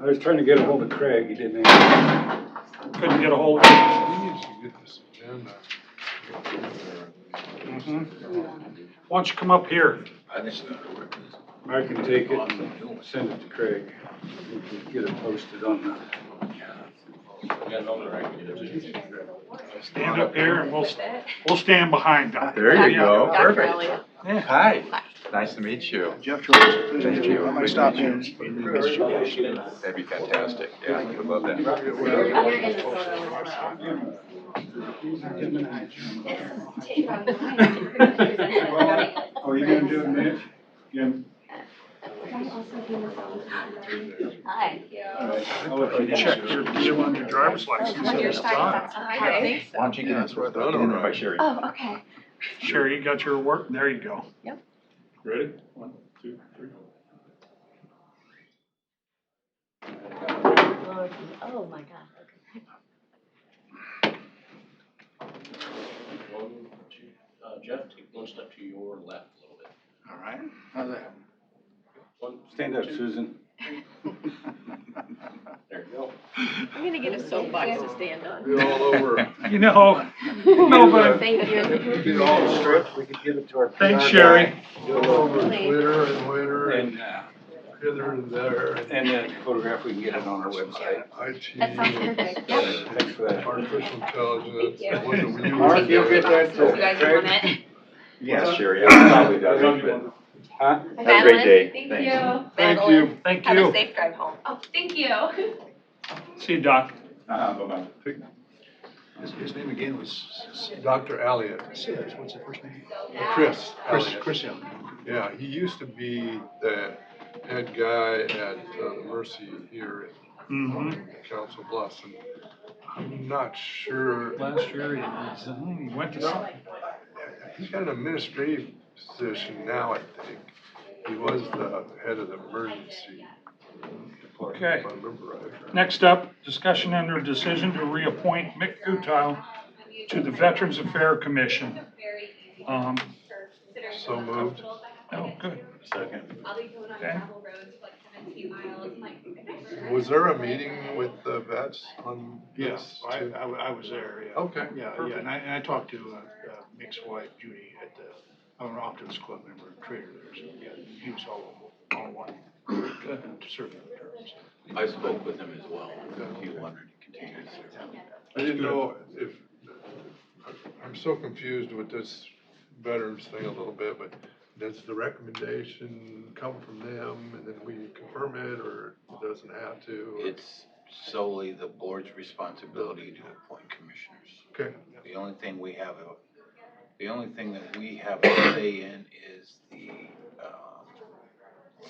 I was trying to get a hold of Craig, he didn't answer. couldn't get a hold of him. We need to get this agenda. Mm-hmm. Why don't you come up here? I can take it and send it to Craig. We can Get it posted on the. Stand up here and we'll, we'll stand behind him. There you go, Dr. perfect. Elliott. Hi, nice to meet you. Jeff George. Thank you. I might stop in. That'd be fantastic, yeah, I would love that. Oh, you gonna do it, Mitch? Jim? Hi. I'll let you Check your, you on your driver's license at this time. I think so. Why don't you get That's what I in, thought. get in by Sherry? Oh, okay. Sure, you got your work? There you go. Ready? One, two, three. Oh, my God. One, two, uh, Jeff, take one step to your left a little bit. All right, how's that? One, Stand up, Susan. there you go. I'm gonna get a soapbox to stand on. Be all over. You know, Nobody- Thank you. Get all the strip. We could give it to our. thanks Sherry. Get all over Twitter and winter and And, uh, hither and there. and and that photograph, we can get it on our website. IT. That sounds perfect. Yeah. Thanks for that. Artificial intelligence. Thank you. What do we Mark, you'll get use? that You to guys Craig? want it? Yeah, Sherry, I probably does but Huh? have a great day. Thank Thanks. you. Thank you. Thank Have a you. safe drive home. Oh, thank you. See you, Doc. Uh, bye-bye. His, his name again was Dr. Elliott. What's his first name? Chris. Chris, Chris Yeah, he used to be the head guy at uh, Mercy here hmm in Council Bluffs. and I'm not sure. Last year he resigned, he went to, some- He's got an administrative position now, I think. He was the head of the emergency. department, Okay. If I remember right. next up, discussion and or decision to reappoint Mick Gutile to the Veterans Affairs Commission. Um, So moved. oh, good. Second. Okay. Was there a meeting with the vets on? Yes, this I, too? I, wa- I was there, yeah. Okay. Yeah, yeah, and I, and I talked to, uh, uh, Mick's wife Judy at the, I'm an Optimus Club member, trader there, so, yeah, he was all, all one, serving terms. I spoke with him as well, he wanted to continue to serve. I didn't know if, I'm so confused with this veterans thing a little bit, but does the recommendation come from them and then we confirm it or doesn't have to? or- It's solely the board's responsibility to appoint commissioners. Okay, The only thing we have, a- the only thing that we have a say in is the, um,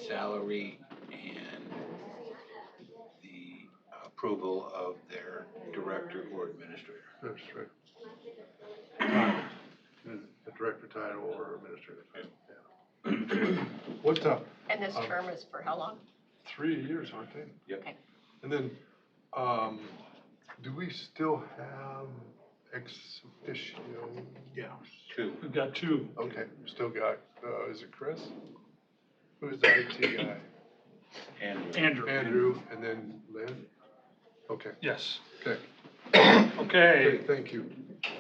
salary and the approval of their director or administrator. that's right. The director title or administrative title, yeah. What's up? And this Um, term is for how long? Three years, aren't they? Yep. Okay. And then, um, do we still have ex officio? Yeah. Two. We've got two. Okay, still got, uh, is it Chris? Who's the IT guy? And Andrew. Andrew, and then Lynn? Okay, Yes. okay, Okay, great, thank you.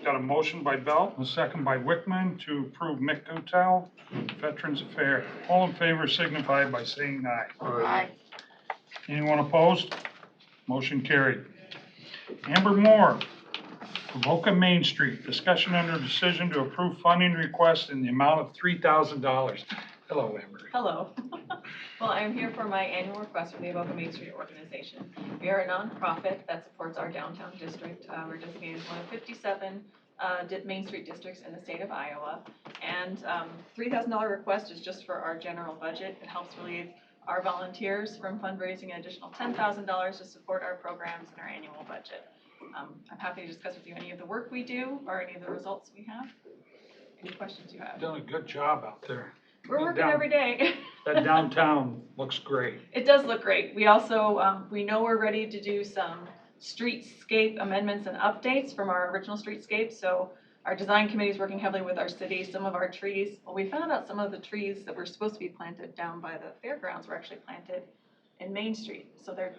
Got a motion by Belt, and a second by Wickman to approve Mick Gutile, Veterans Affairs. All in favor signify by saying aye. All right. Anyone opposed? Motion carried. Amber Moore, Avoca Main Street, discussion under decision to approve funding request in the amount of three thousand dollars. Hello, Amber. Hello. Well, I'm here for my annual request from the Avoca Main Street Organization. We are a nonprofit that supports our downtown district. Uh, We're designated as one of 57 uh, di- Main Street districts in the state of Iowa. And um, $3,000 request is just for our general budget. It helps relieve our volunteers from fundraising an additional $10,000 to support our programs and our annual budget. Um, I'm happy to discuss with you any of the work we do or any of the results we have. Any questions you have? Done a good job out there. We're working down. every day. That downtown looks great. It does look great. We also, um, we know we're ready to do some streetscape amendments and updates from our original streetscape, so our design committee is working heavily with our city, some of our trees, well, we found out some of the trees that were supposed to be planted down by the fairgrounds were actually planted in Main Street, so they're